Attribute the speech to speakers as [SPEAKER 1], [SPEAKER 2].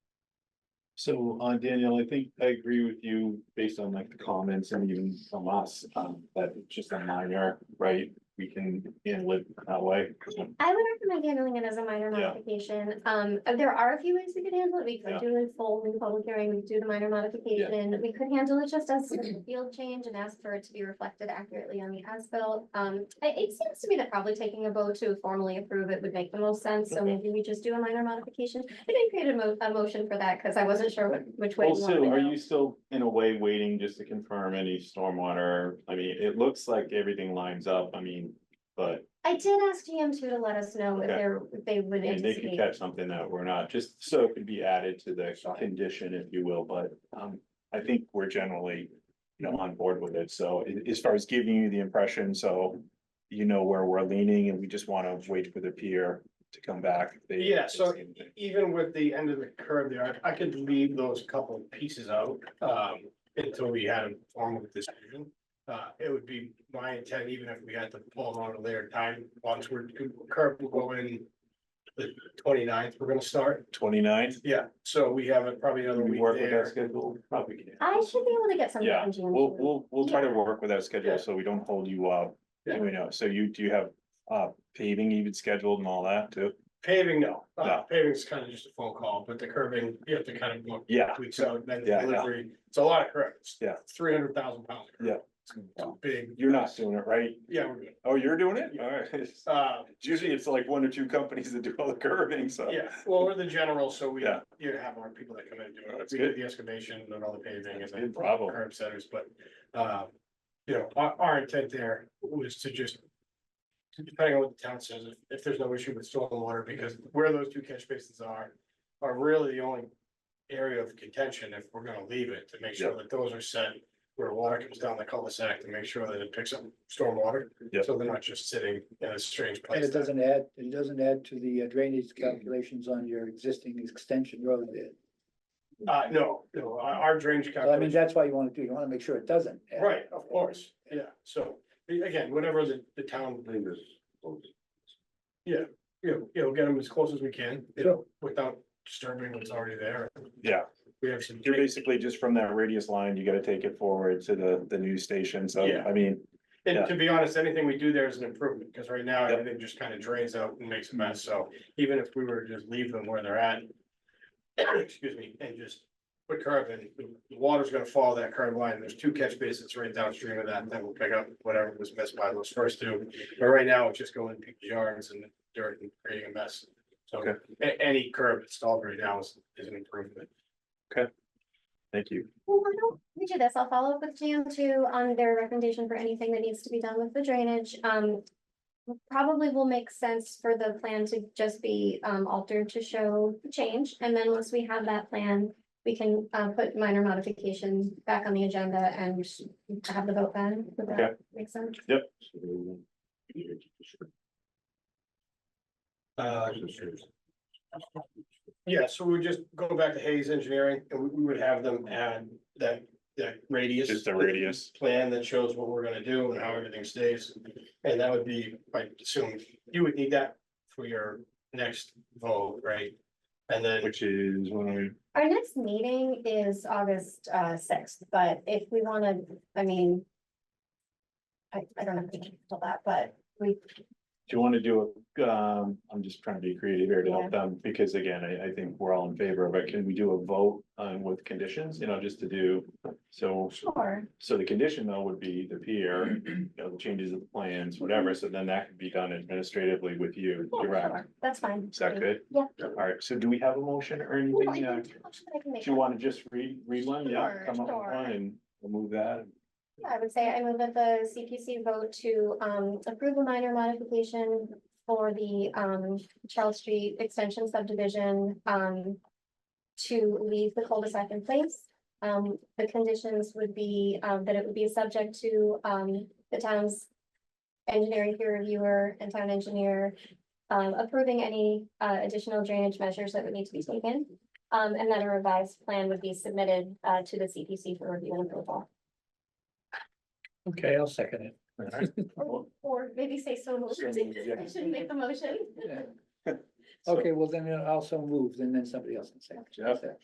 [SPEAKER 1] So, uh, Daniel, I think I agree with you based on like the comments and even from us, um, that it's just a minor, right? We can, you know, live that way.
[SPEAKER 2] I would recommend handling it as a minor
[SPEAKER 1] Yeah.
[SPEAKER 2] modification. Um, uh, there are a few ways we could handle it. We
[SPEAKER 1] Yeah.
[SPEAKER 2] could do it in full in the public hearing, we could do the minor modification. We could handle it just as a field change and ask for it to be reflected accurately on the as-built. Um, it, it seems to me that probably taking a vote to formally approve it would make the most sense, so
[SPEAKER 1] Okay.
[SPEAKER 2] maybe we just do a minor modification. I didn't create a mo- a motion for that because I wasn't sure what- which way. you wanted
[SPEAKER 1] Also,
[SPEAKER 2] to
[SPEAKER 1] are
[SPEAKER 2] go.
[SPEAKER 1] you still in a way waiting just to confirm any stormwater? I mean, it looks like everything lines up, I mean, but
[SPEAKER 2] I did ask GM two to let us know if
[SPEAKER 1] Okay.
[SPEAKER 2] they're, if they would
[SPEAKER 1] and they could
[SPEAKER 2] anticipate.
[SPEAKER 1] catch something that we're not, just so it could be added to the condition, if you will, but, um, I think we're generally, you
[SPEAKER 3] Mm-hmm.
[SPEAKER 1] know, on board with it, so a- as far as giving you the impression, so you know where we're leaning, and we just wanna wait for the peer to come back. if they-
[SPEAKER 3] Yeah, so
[SPEAKER 1] if they-
[SPEAKER 3] even with the end of the curve there, I I could leave those couple of pieces out, um, until we had a formal decision. Uh, it would be my intent, even if we had to pull on a later time, once we're, curve will go in the 29th. ninth, we're gonna start.
[SPEAKER 1] Twenty-nine,
[SPEAKER 3] Yeah, so we have probably another
[SPEAKER 1] we
[SPEAKER 3] week
[SPEAKER 1] work with that
[SPEAKER 3] there.
[SPEAKER 1] schedule, probably. can.
[SPEAKER 2] I should be able to get something
[SPEAKER 1] Yeah,
[SPEAKER 2] from GM two.
[SPEAKER 1] We'll, we'll, we'll try to
[SPEAKER 2] Yeah.
[SPEAKER 1] work with that
[SPEAKER 3] Yeah.
[SPEAKER 1] schedule, so we don't hold you up,
[SPEAKER 3] Yeah.
[SPEAKER 1] you know, so you, do you have, uh, paving even scheduled and all that too?
[SPEAKER 3] Paving, no, uh,
[SPEAKER 1] No.
[SPEAKER 3] paving's kind of just a phone call, but the curving, you have to kind of look
[SPEAKER 1] Yeah.
[SPEAKER 3] weeks out, then
[SPEAKER 1] Yeah, yeah.
[SPEAKER 3] delivery, it's a lot of curves.
[SPEAKER 1] Yeah.
[SPEAKER 3] Three hundred thousand pounds. of curve.
[SPEAKER 1] Yeah.
[SPEAKER 3] It's a Big.
[SPEAKER 1] You're not doing it, right?
[SPEAKER 3] Yeah, we're good.
[SPEAKER 1] Oh, you're doing it? Alright.
[SPEAKER 3] Uh,
[SPEAKER 1] Usually it's like one or two companies that do all the curving, so.
[SPEAKER 3] Yeah, well, we're the general, so we,
[SPEAKER 1] Yeah.
[SPEAKER 3] you have our people that come in and do it.
[SPEAKER 1] That's
[SPEAKER 3] We do
[SPEAKER 1] good.
[SPEAKER 3] the excavation and all the paving and
[SPEAKER 1] That's
[SPEAKER 3] then
[SPEAKER 1] good, bravo.
[SPEAKER 3] curb setters, but, uh, you know, our, our intent there was to just depending on what the town says, if, if there's no issue with stormwater, because where those two catch basins are, are really the only area of contention if we're gonna leave it, to make sure that those are set where water comes down the cul-de-sac, to make sure that it picks up stormwater.
[SPEAKER 1] Yeah.
[SPEAKER 3] So they're not just sitting in a strange place.
[SPEAKER 4] And it doesn't add, it doesn't add to the uh, drainage calculations on your existing extension road there.
[SPEAKER 3] Uh, no, no, our, our drainage
[SPEAKER 4] So I mean,
[SPEAKER 3] calculation.
[SPEAKER 4] that's why you wanna do, you wanna make sure it doesn't. add.
[SPEAKER 3] Right, of course, yeah, so, a- again, whatever the, the town. Yeah, you know, you know, get them as close as we can, you know, without disturbing what's already there,
[SPEAKER 1] Yeah,
[SPEAKER 3] we have some.
[SPEAKER 1] you're basically just from that radius line, you gotta take it forward to the, the news station, so,
[SPEAKER 3] Yeah.
[SPEAKER 1] I mean,
[SPEAKER 3] And to be honest, anything we do there is an improvement, because right now
[SPEAKER 1] Yep.
[SPEAKER 3] everything just kind of drains out and makes a mess, so even if we were to just leave them where they're at. Excuse me, and just put curb in, the water's gonna follow that curb line, there's two catch basins right downstream of that, that will pick up whatever was missed by those first two. But right now, it's just going in people's yards and dirt and creating a mess, so
[SPEAKER 1] Okay.
[SPEAKER 3] a- any curb installed right now is, is an improvement.
[SPEAKER 1] thank you.
[SPEAKER 2] Well, why don't we do this? I'll follow up with GM two on their recommendation for anything that needs to be done with the drainage. Um. Probably will make sense for the plan to just be um altered to show the change, and then once we have that plan. We can uh put minor modifications back on the agenda and have the vote then. Would
[SPEAKER 1] Okay.
[SPEAKER 2] that make sense?
[SPEAKER 3] Uh, Yeah, so we would just go back to Hayes Engineering and we, we would have them add that, that radius.
[SPEAKER 1] Just the radius.
[SPEAKER 3] Plan that shows what we're gonna do and how everything stays. And that would be, I assume, you would need that for your next vote, right? And then,
[SPEAKER 1] Which is when we,
[SPEAKER 2] Our next meeting is August uh sixth, but if we wanna, I mean. I I don't know if we can handle that, but we
[SPEAKER 1] do you wanna do, a? um, I'm just trying to be creative here to help them, because again, I, I think we're all in favor, but can we do a vote on with conditions, you know, just to do, so.
[SPEAKER 2] Sure,
[SPEAKER 1] So the condition though would be the peer, you know, the changes of the plans, whatever, so then that could be done administratively with you,
[SPEAKER 3] Oh,
[SPEAKER 2] yeah,
[SPEAKER 1] direct.
[SPEAKER 2] sure, that's fine.
[SPEAKER 1] Is that good?
[SPEAKER 2] Yeah.
[SPEAKER 1] All right, so do we have a motion or
[SPEAKER 2] Well, I
[SPEAKER 1] anything? uh,
[SPEAKER 2] didn't
[SPEAKER 1] Do
[SPEAKER 2] how much that I can make
[SPEAKER 1] you
[SPEAKER 2] up.
[SPEAKER 1] want to just read, read one? Yeah,
[SPEAKER 2] Sure,
[SPEAKER 1] come up with
[SPEAKER 2] sure.
[SPEAKER 1] one and we'll move that.
[SPEAKER 2] Yeah, I would say I move that the CPC vote to um approve a minor modification for the um Charles Street Extension subdivision um to leave the cul-de-sac in place. Um, the conditions would be um that it would be subject to um the town's engineering peer reviewer and town engineer um approving any uh additional drainage measures that would need to be taken. Um, and then a revised plan would be submitted uh to the CPC for review and approval.
[SPEAKER 4] Okay, I'll second it.
[SPEAKER 1] All right. Well,
[SPEAKER 2] Or maybe say so moved.
[SPEAKER 1] So moved, yeah.
[SPEAKER 2] I shouldn't make the motion.
[SPEAKER 4] Yeah. Okay, well, then I'll also move, and then somebody else can second.
[SPEAKER 1] Jeff?